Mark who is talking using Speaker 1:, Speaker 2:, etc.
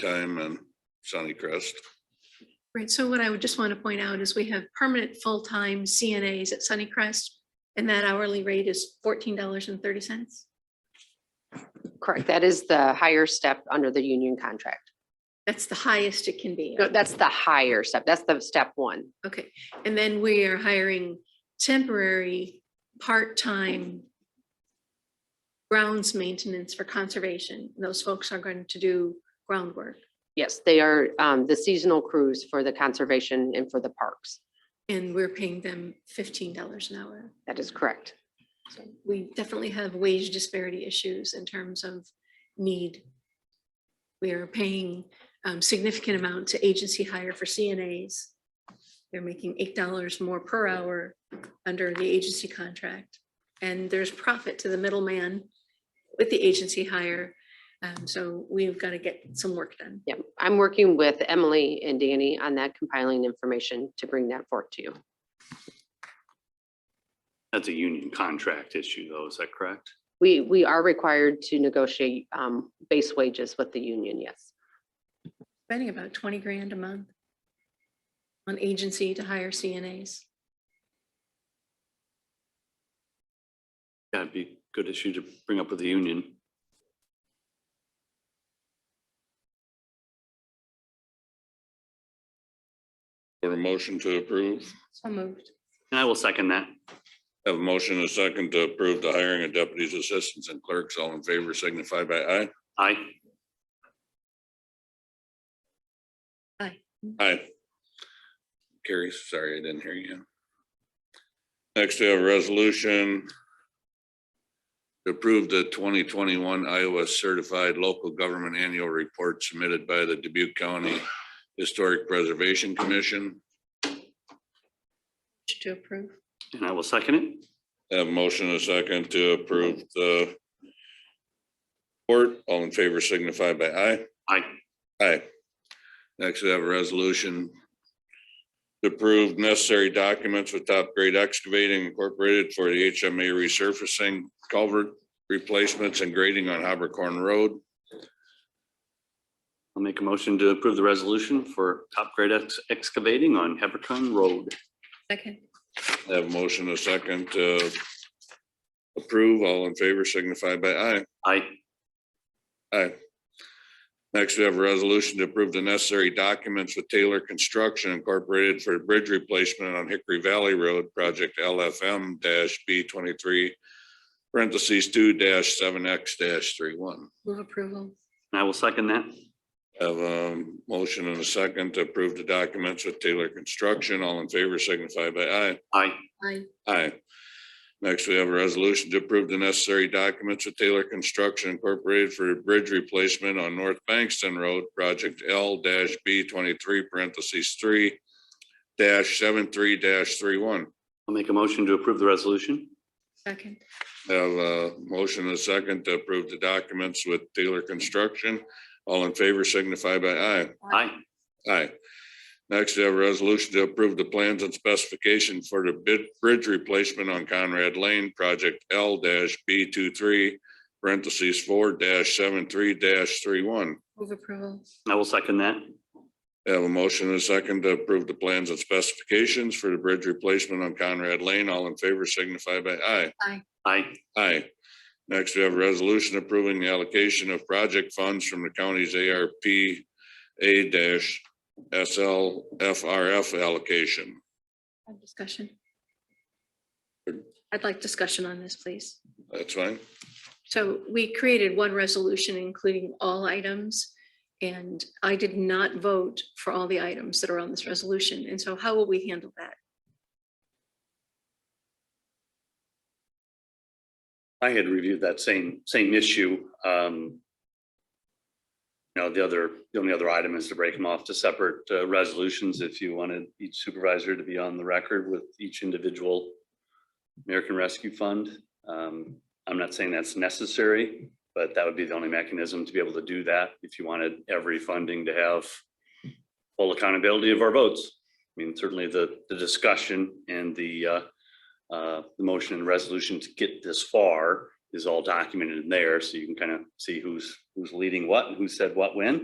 Speaker 1: time on Sunnycrest.
Speaker 2: Right, so what I would just want to point out is we have permanent full-time CNAs at Sunnycrest, and that hourly rate is fourteen dollars and thirty cents.
Speaker 3: Correct. That is the higher step under the union contract.
Speaker 2: That's the highest it can be.
Speaker 3: No, That's the higher step. That's the step one.
Speaker 2: Okay, and then we are hiring temporary, part-time grounds maintenance for conservation. Those folks are going to do groundwork.
Speaker 3: Yes, they are um, the seasonal crews for the conservation and for the parks.
Speaker 2: And we're paying them fifteen dollars an hour.
Speaker 3: That is correct.
Speaker 2: So We definitely have wage disparity issues in terms of need. We are paying um, significant amount to agency hire for CNAs. They're making eight dollars more per hour under the agency contract. And there's profit to the middleman with the agency hire. Um, So we've got to get some work done.
Speaker 3: Yeah, I'm working with Emily and Danny on that compiling information to bring that forth to you.
Speaker 4: That's a union contract issue though, is that correct?
Speaker 3: We, we are required to negotiate um, base wages with the union, yes.
Speaker 2: Spending about twenty grand a month on agency to hire CNAs.
Speaker 4: That'd be a good issue to bring up with the union.
Speaker 1: For a motion to approve,
Speaker 2: So moved.
Speaker 4: And I will second that.
Speaker 1: have a motion and a second to approve the hiring of deputies, assistants and clerks. All in favor signify by aye.
Speaker 4: Aye.
Speaker 1: Aye. Carrie, sorry, I didn't hear you. Next, we have a resolution to approve the twenty twenty-one Iowa Certified Local Government Annual Report submitted by the Dubuque County Historic Preservation Commission.
Speaker 2: To approve.
Speaker 4: And I will second it.
Speaker 1: Have a motion and a second to approve the report. All in favor signify by aye.
Speaker 4: Aye.
Speaker 1: Aye. Next, we have a resolution to approve necessary documents with Top Grade Excavating Incorporated for the HMA resurfacing culvert replacements and grading on Habercorn Road.
Speaker 4: I'll make a motion to approve the resolution for top grade ex- excavating on Hebron Road.
Speaker 2: Second.
Speaker 1: I Have a motion and a second to approve. All in favor signify by aye.
Speaker 4: Aye.
Speaker 1: Aye. Next, we have a resolution to approve the necessary documents with Taylor Construction Incorporated for the bridge replacement on Hickory Valley Road, project LFM B twenty-three, parentheses two seven X dash three one.
Speaker 2: Move approval.
Speaker 4: And I will second that.
Speaker 1: Have a motion and a second to approve the documents with Taylor Construction. All in favor signify by aye.
Speaker 4: Aye.
Speaker 2: Aye.
Speaker 1: Aye. Next, we have a resolution to approve the necessary documents with Taylor Construction Incorporated for a bridge replacement on North Bankston Road, project L B twenty-three parentheses three dash seven three dash three one.
Speaker 4: I'll make a motion to approve the resolution.
Speaker 2: Second.
Speaker 1: Have a motion and a second to approve the documents with Taylor Construction. All in favor signify by aye.
Speaker 4: Aye.
Speaker 1: Aye. Next, we have a resolution to approve the plans and specification for the bid, bridge replacement on Conrad Lane, project L B 23 parentheses four 73 three one.
Speaker 2: Move approval.
Speaker 4: And I will second that.
Speaker 1: Have a motion and a second to approve the plans and specifications for the bridge replacement on Conrad Lane. All in favor signify by aye.
Speaker 4: Aye.
Speaker 1: Aye. Next, we have a resolution approving the allocation of project funds from the county's ARP A dash SLFRF allocation.
Speaker 2: Have Discussion. I'd like discussion on this, please.
Speaker 1: That's fine.
Speaker 2: So we created one resolution including all items. And I did not vote for all the items that are on this resolution. And so how will we handle that?
Speaker 4: I had reviewed that same, same issue. Um You know, the other, the only other item is to break them off to separate uh, resolutions if you wanted each supervisor to be on the record with each individual American Rescue Fund. Um I'm not saying that's necessary, but that would be the only mechanism to be able to do that if you wanted every funding to have full accountability of our votes. I mean, certainly the, the discussion and the uh uh, the motion and resolution to get this far is all documented in there, so you can kind of see who's, who's leading what and who said what when.